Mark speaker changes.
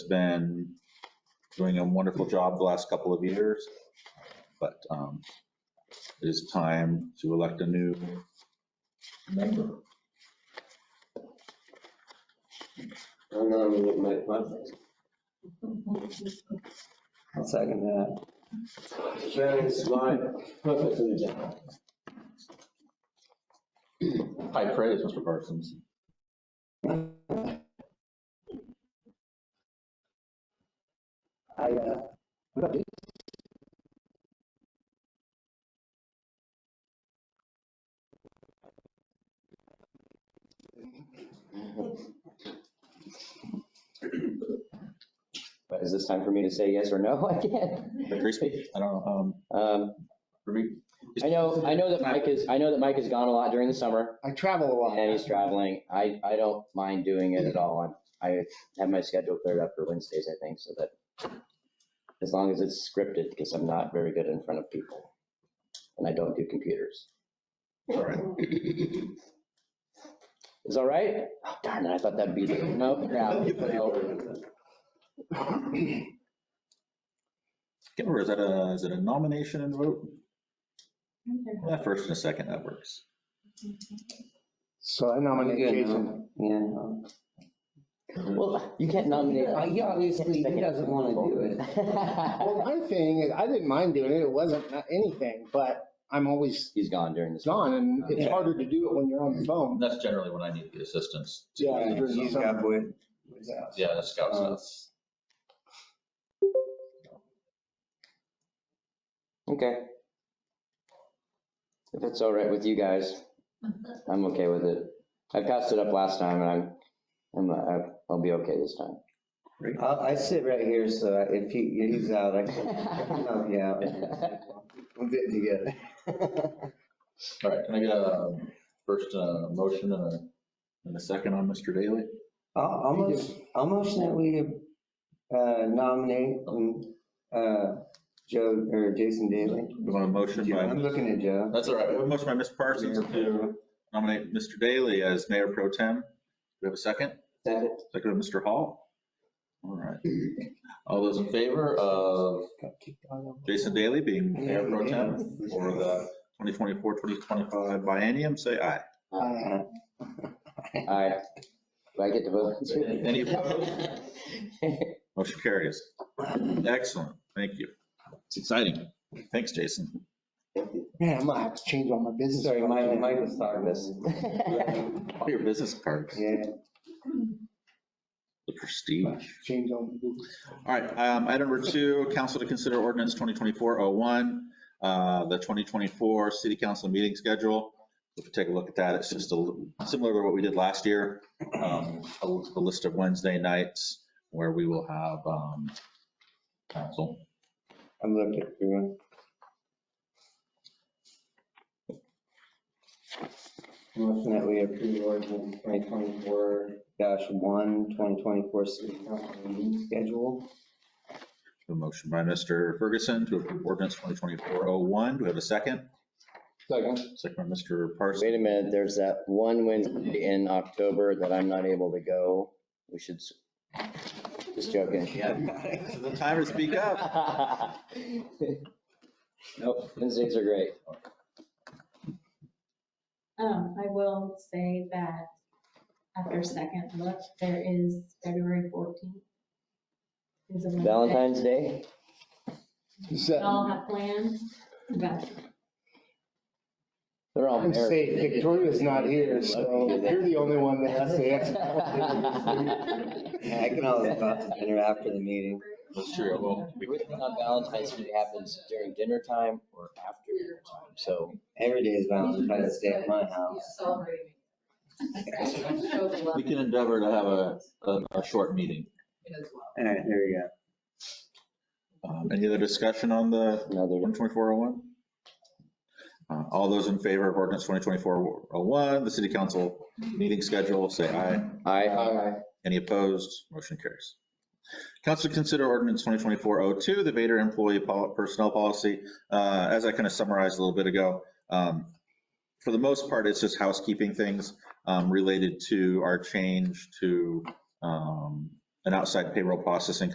Speaker 1: been doing a wonderful job the last couple of years, but um, it is time to elect a new member.
Speaker 2: I'm nominating Mike Mudley.
Speaker 3: I'll second that.
Speaker 2: Dennis, my perfect for the job.
Speaker 1: High praise, Mr. Parsons.
Speaker 3: I, uh, what about you?
Speaker 4: But is this time for me to say yes or no again?
Speaker 1: Mr. Griesby? I don't know. um,
Speaker 4: Um,
Speaker 1: for me,
Speaker 4: I know, I know that Mike is, I know that Mike has gone a lot during the summer
Speaker 3: I travel a lot.
Speaker 4: and he's traveling. I, I don't mind doing it at all. I I have my schedule cleared up for Wednesdays, I think, so that as long as it's scripted, because I'm not very good in front of people and I don't do computers.
Speaker 1: All right.
Speaker 4: Is all right? Oh, darn it, I thought that'd be, the- no, crap. no.
Speaker 1: Can't remember, is that a, is it a nomination and vote? Well, that First and a second, that works.
Speaker 3: So I nominate Jason.
Speaker 4: Yeah. Well, you can't nominate.
Speaker 3: Uh, He obviously, he doesn't want to do it. Well, my thing is, I didn't mind doing it. It wasn't not anything, but I'm always
Speaker 4: He's gone during this.
Speaker 3: gone and it's harder to do it when you're on the phone.
Speaker 1: And that's generally when I need the assistance.
Speaker 3: Yeah. during the summer.
Speaker 1: Yeah, the scouts. that's-
Speaker 4: Okay. If it's all right with you guys, I'm okay with it. I passed it up last time and I'm, I'm, I- I'll be okay this time.
Speaker 2: I sit right here, so if he, he's out, I can, yeah, we're getting together.
Speaker 1: All right, can I get a first uh, motion and a, and a second on Mr. Daly?
Speaker 2: I'll, I'll motion- I'll motion that we uh, nominate um, uh, Joe, or Jason Daly.
Speaker 1: We want a motion
Speaker 2: I'm
Speaker 1: by,
Speaker 2: looking at Joe.
Speaker 1: that's all right, we have a motion by Mr. Parsons to nominate Mr. Daly as mayor pro tem. Do we have a second?
Speaker 2: Second.
Speaker 1: Second by Mr. Hall? All right. All those in favor of Jason Daly being mayor pro tem for the 2024, 2025 biennium, say aye.
Speaker 3: Uh,
Speaker 4: All right. Do I get to vote?
Speaker 1: Any opposed? Motion carries. Excellent, thank you. It's exciting. Thanks, Jason.
Speaker 3: Man, I'm gonna have to change all my business.
Speaker 2: Sorry, Mike, Mike was talking
Speaker 4: This.
Speaker 2: this.
Speaker 1: All your business cards,
Speaker 2: Yeah.
Speaker 1: the prestige.
Speaker 3: Change all my business.
Speaker 1: All right, um, item number two, council to consider ordinance 2024-01, uh, the 2024 city council meeting schedule. If you take a look at that, it's just a, little- similar to what we did last year. Um, a a list of Wednesday nights where we will have, um, council.
Speaker 2: I'm looking through. Motion that we approve ordinance 2024 one, 2024 city council meeting schedule.
Speaker 1: A motion by Mr. Ferguson to approve ordinance 2024-01. Do we have a second?
Speaker 3: Second.
Speaker 1: Second by Mr. Parsons.
Speaker 4: Wait a minute, there's that one Wednesday in October that I'm not able to go. We should, s- just joking.
Speaker 1: This is the time to speak up.
Speaker 4: Nope, Wednesdays are great.
Speaker 5: Um, I will say that after a second look, there is February 14th. is a Wednesday.
Speaker 4: Valentine's Day?
Speaker 5: We all have plans, but
Speaker 4: They're all
Speaker 3: I'm
Speaker 4: married.
Speaker 3: saying Victoria's not here, so you're the only one that has the ex.
Speaker 2: I can always go out to dinner after the meeting.
Speaker 1: That's true, well, we-
Speaker 4: Everything on Valentine's Day happens during dinner time or after dinner time, so.
Speaker 2: Every day is Valentine's Day at my house.
Speaker 6: Celebrating.
Speaker 1: we can endeavor to have a, a- a short meeting.
Speaker 2: All right, here we go.
Speaker 1: Um, Any other discussion on the
Speaker 4: Another,
Speaker 1: 12401? Uh, All those in favor of ordinance 202401, the city council meeting schedule, say aye.
Speaker 2: uh,
Speaker 4: I,
Speaker 1: Any opposed? Motion carries. Council to consider ordinance 2024-02, the Vader employee pol- personnel policy. Uh, As I kind of summarized a little bit ago, um, for the most part, it's just housekeeping things um, related to our change to um, an outside payroll processing